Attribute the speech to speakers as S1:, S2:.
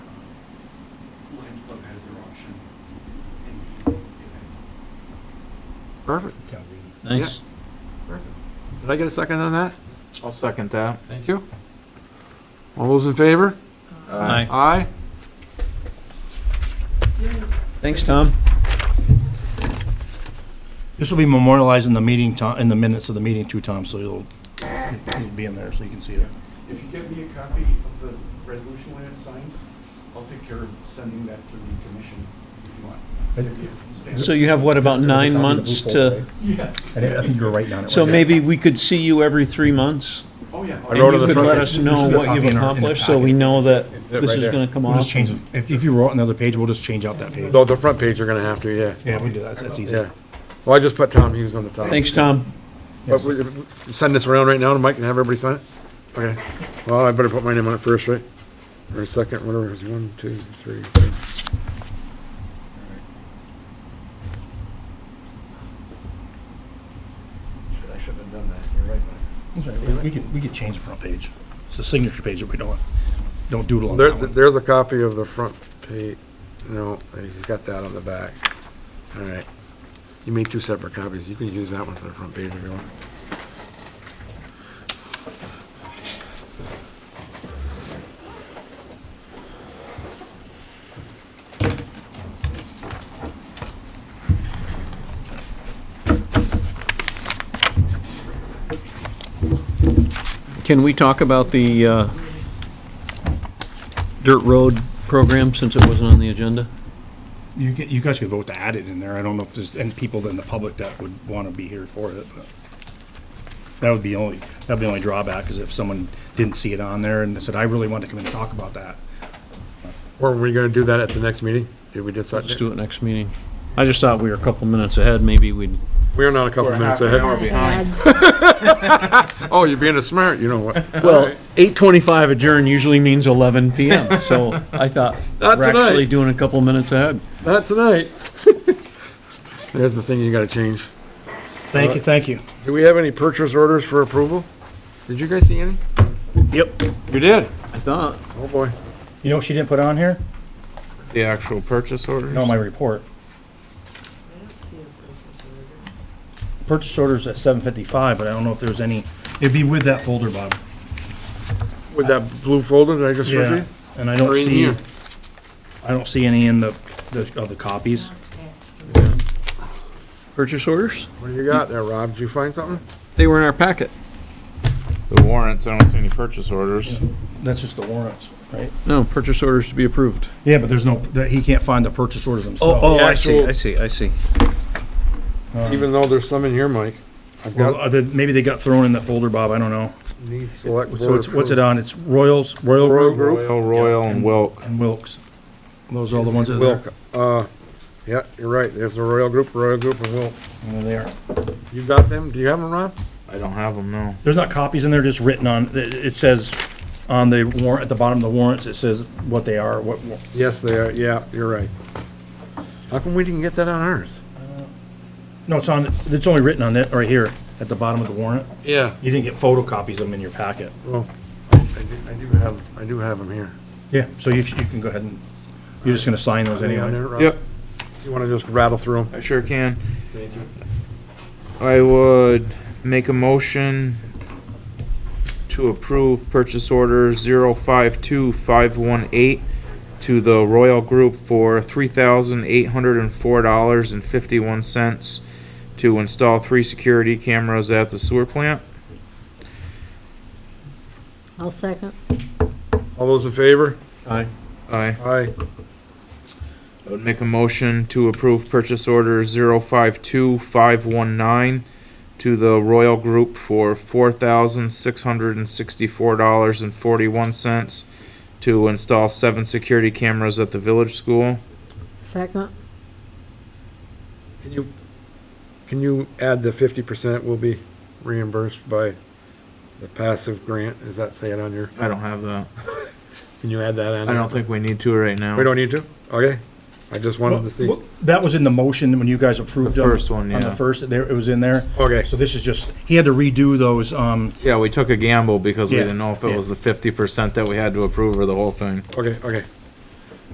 S1: Lions Club has their auction in the event.
S2: Perfect,
S3: Nice.
S2: perfect. Did I get a second on that?
S4: I'll second that.
S2: Thank you. All those in favor?
S3: Aye.
S4: Uh,
S2: Aye.
S3: Thanks, Tom.
S5: This will be memorialized in the meeting, to- in the minutes of the meeting too, Tom, so you'll, it'll be in there, so you can see it.
S1: If you get me a copy of the resolution when it's signed, I'll take care of sending that to the commission if you want. Send you a stamp.
S3: So you have, what, about nine
S5: There's a copy of the
S3: months
S5: blue folder,
S3: to,
S5: right?
S1: Yes.
S5: I think- I think you were right down it.
S3: so
S5: right?
S3: maybe we could see you every three months?
S1: Oh, yeah.
S4: I wrote it
S3: And
S4: on
S3: you
S4: the
S3: could let
S4: front.
S3: us
S5: This
S3: know
S5: is the
S3: what
S5: copy
S3: you've
S5: in our- in the
S3: accomplished, so
S5: packet.
S3: we know that
S4: It's it
S3: this
S4: right
S3: is
S4: there.
S3: gonna come
S5: We'll just
S3: off.
S5: change, the- if, if you wrote another page, we'll just change out that page.
S4: No, the front page you're gonna have to, yeah,
S5: Yeah, we can do that, that's easy.
S4: yeah. Well, I just put Tom Hughes on the top.
S3: Thanks, Tom.
S4: But we- Send this around right now to Mike and have everybody sign it? Okay. Well, I better put my name on it first, right? Or second, whatever, it is. one, two, three. four.
S1: I should have done that, you're right,
S5: That's all right, We can, we can change the front page. It's the signature page that we don't, don't doodle on
S4: There,
S5: that one.
S4: there's a copy of the front page. No, he's got that on the back. All right. You made two separate copies. You can use that one for the front page if you want.
S3: Can we talk about the uh, dirt road program since it wasn't on the agenda?
S5: You get, you guys could vote to add it in there. I don't know if there's any people in the public that would want to be here for it, but that would be only, that'd be the only drawback, is if someone didn't see it on there and said, I really want to come in and talk about that.
S4: Or were you gonna do that at the next meeting? Did we decide?
S3: Let's do it next meeting. I just thought we were a couple minutes ahead, maybe we'd,
S4: We're not a couple minutes ahead. Oh, you're being a smart, you know what?
S3: well, 8:25 adjourn usually means 11 PM, so I thought
S4: Not
S3: we're actually
S4: tonight.
S3: doing a couple minutes ahead.
S4: Not tonight. There's the thing you gotta change.
S5: Thank you, thank you.
S4: Do we have any purchase orders for approval? Did you guys see any?
S3: Yep.
S4: You did?
S3: I thought.
S4: Oh, boy.
S5: You know what she didn't put on here?
S6: The actual purchase orders?
S5: No, my report. Purchase orders at seven fifty-five, but I don't know if there was any, it'd be with that folder, Bob.
S4: With that blue folder that I just showed you?
S5: And I don't
S4: Or in
S5: see,
S4: here.
S5: I don't see any in the, the, of the copies.
S3: Purchase orders?
S4: What do you got there, Rob? Did you find something?
S3: They were in our packet.
S6: The warrants, I don't see any purchase orders.
S5: That's just the warrants, right?
S3: No, purchase orders to be approved.
S5: Yeah, but there's no, that he can't find the purchase orders themselves.
S4: oh, I see, I
S3: see, I see.
S4: Even though there's some in here, Mike. I've
S5: Well,
S4: got.
S5: uh, the- maybe they got thrown in the folder, Bob, I don't know.
S4: these select
S5: So it's, what's it
S4: board
S5: on? It's Royals, Royal
S4: Royal
S5: Group
S4: Group.
S6: Royal, Royal, and Wilk.
S5: and Wilks. Those are all the ones that are
S4: Wilk, uh, yeah, you're right. There's the Royal Group, Royal Group and Wilk.
S5: there. They are.
S4: You got them? Do you have them, Rob?
S6: I don't have them, no.
S5: There's not copies in there, just written on, it- it says on the warrant, at the bottom of the warrants, it says what they are, what, what-
S4: Yes, they are. Yeah, you're right. How come we didn't get that on ours?
S5: no, it's on, it's only written on it, right here, at the bottom of the warrant.
S4: Yeah.
S5: You didn't get photocopies of them in your packet.
S4: Well, I do, I do have, I do have them here.
S5: Yeah. So you, you can go ahead and, you're just gonna sign those
S4: Anything on
S5: anyway.
S4: there, Rob?
S6: Yep,
S4: You wanna just rattle through them?
S6: I sure can. I would make a motion to approve purchase order zero five two five one eight to the Royal Group for three thousand eight hundred and four dollars and fifty-one cents to install three security cameras at the sewer plant.
S7: I'll second.
S4: All those in favor?
S3: Aye.
S6: Aye.
S4: Aye.
S6: I would make a motion to approve purchase order zero five two five one nine to the Royal Group for four thousand six hundred and sixty-four dollars and forty-one cents to install seven security cameras at the village school.
S7: Second,
S4: Can you, can you add the fifty percent will be reimbursed by the passive grant? Is that saying on your,
S6: I don't have that.
S4: can you add that on?
S6: I don't think we need to right now.
S4: We don't need to? Okay. I just wanted to see.
S5: Well, That was in the motion when you guys approved
S6: The
S5: them.
S6: first one,
S5: On the
S6: yeah.
S5: first, there, it was in there.
S4: Okay.
S5: So this is just, he had to redo those, um,
S6: Yeah, we took a gamble because we
S5: Yeah,
S6: didn't know if
S5: yeah.
S6: it was the fifty percent that we had to approve or the whole thing.
S4: Okay, okay.